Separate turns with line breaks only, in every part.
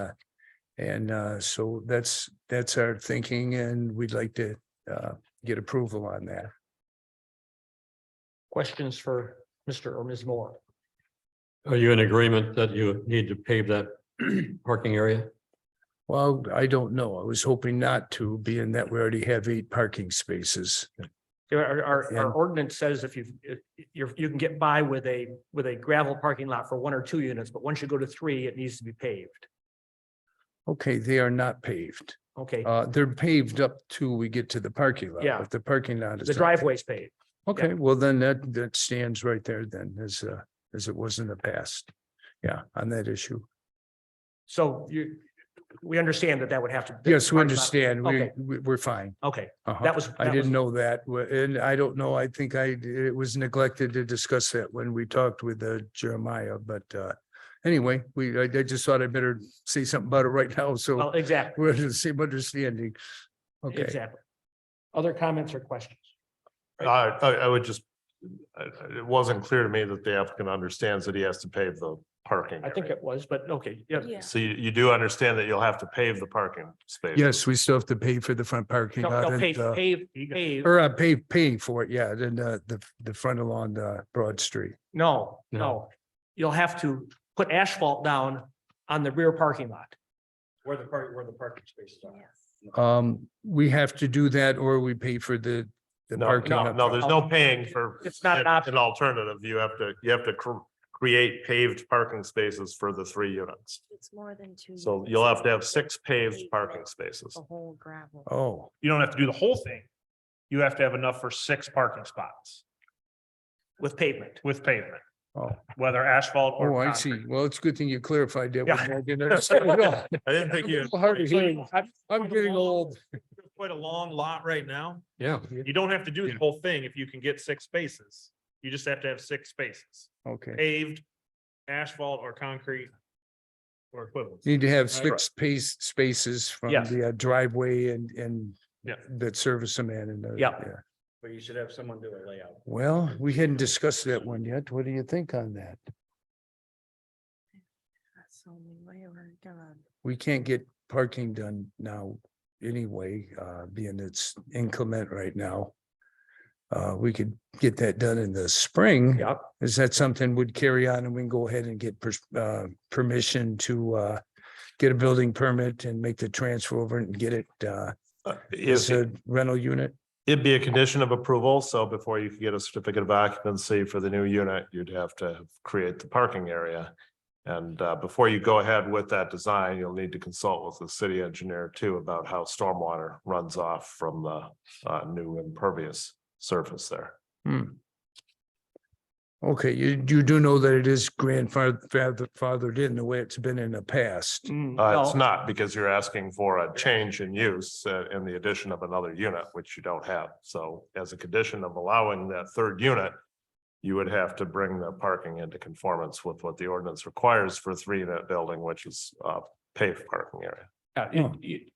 uh, And uh, so that's, that's our thinking and we'd like to uh, get approval on that.
Questions for Mr. or Ms. Moore?
Are you in agreement that you need to pave that parking area?
Well, I don't know. I was hoping not to, being that we already have eight parking spaces.
There Our, our,
Yeah.
our ordinance says if you, you're, you can get by with a, with a gravel parking lot for one or two units, but once you go to three, it needs to be paved.
Okay, they are not paved.
Okay,
Uh, They're paved up till we get to the parking lot.
Yeah.
If The parking lot is.
the driveway's paved.
Okay, well, then that, that stands right there then as, uh, as it was in the past. Yeah, on that issue.
So you, we understand that that would have to.
Yes, we
parking lot-
understand. We,
Okay.
we- we're fine.
Okay,
Uh-huh.
that was.
I
that was-
didn't know that, w- and I don't know, I think I, it was neglected to discuss that when we talked with uh, Jeremiah, but uh. Anyway, we, I, I just thought I better say something about it right now, so
Well, exactly,
we're in the same understanding. Okay,
exactly. Other comments or questions?
I, I, I would just, I- I- it wasn't clear to me that the applicant understands that he has to pave the parking.
I think
area.
it was, but okay, yeah.
Yeah.
So you, you do understand that you'll have to pave the parking space.
yes, we still have to pay for the front parking
No,
lot
no, Pave,
and, uh,
pave, pave,
or uh, pay, paying for it, yeah, then uh, the, the front along the Broad Street.
no,
No.
no. You'll have to put asphalt down on the rear parking lot. Where the park, where the parking spaces are.
Um, we have to do that or we pay for the, the
No,
parking.
no,
up
no,
front.
there's no paying for.
It's not an option.
An alternative. You have to, you have to cr- create paved parking spaces for the three units.
It's more than two.
So
units.
you'll have to have six paved parking spaces.
A whole gravel.
Oh.
you don't have to do the whole thing. You have to have enough for six parking spots
With pavement.
with pavement.
Oh.
Whether asphalt or.
Oh, I see.
concrete.
Well, it's a good thing you clarified that.
Yeah.
one. I didn't understand at all.
I didn't think you.
It's hard to hear. I'm- I'm
Quite a
getting
long-
old.
Quite a long lot right now.
Yeah.
You don't have to do
Yeah.
the whole thing if you can get six spaces. You just have to have six spaces,
Okay.
paved, asphalt or concrete. Or equivalent.
Need to have six pace spaces from
Yes.
the uh, driveway and, and
Yeah.
that service a man and. uh,
Yeah.
But you should have someone do a layout.
Well, we hadn't discussed that one yet. What do you think on that?
That's the only way we're gonna.
We can't get parking done now anyway, uh, being it's inclement right now. Uh, we could get that done in the spring.
Yep.
Is that something would carry on and we can go ahead and get pers- uh, permission to uh, get a building permit and make the transfer over and get it uh,
Is
as
it?
a rental unit?
It'd be a condition of approval, so before you could get a certificate of occupancy for the new unit, you'd have to create the parking area. And uh, before you go ahead with that design, you'll need to consult with the city engineer too about how stormwater runs off from the uh, new impervious surface there.
Okay, you, you do know that it is grandfathered in the way it's been in the
Mm.
past.
Mm-hmm.
Uh, It's not because you're asking for a change in use uh, in the addition of another unit, which you don't have. So as a condition of allowing that third unit, you would have to bring the parking into conformance with what the ordinance requires for a three-unit building, which is uh, paved parking area.
Uh, you- you-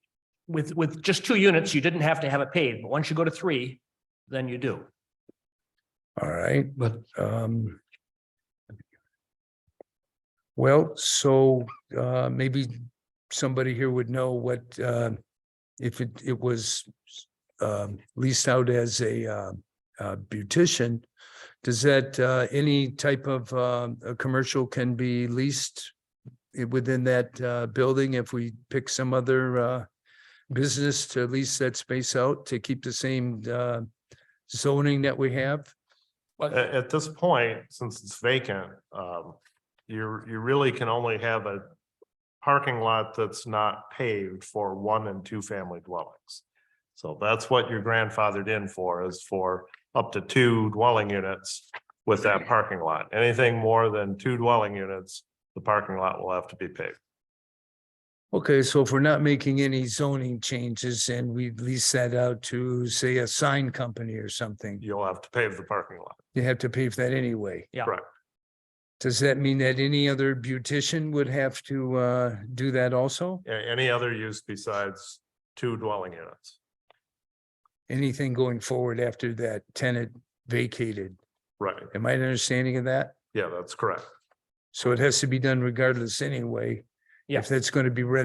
With, with just two units, you didn't have to have it paved, but once you go to three, then you do.
All right.
But
Um. Well, so uh maybe somebody here would know what uh if it it was um leased out as a uh uh beautician. Does that uh any type of um a commercial can be leased i- within that uh building if we pick some other uh business to lease that space out to keep the same uh zoning that we have?
At, at this point, since it's vacant, um, you, you really can only have a parking lot that's not paved for one and two family dwellings. So that's what you're grandfathered in for is for up to two dwelling units with that parking lot. Anything more than two dwelling units, the parking lot will have to be paved.
Okay, so if we're not making any zoning changes and we lease that out to, say, a sign company or something,
You'll have to pave the parking lot.
you have to pay for that anyway.
Yeah.
Correct.
Does that mean that any other beautician would have to uh do that also?
A- Any other use besides two dwelling units?
Anything going forward after that tenant vacated?
Right.
Am I understanding of that?
Yeah, that's correct.
So it has to be done regardless anyway.
Yeah.
If that's going to be renovated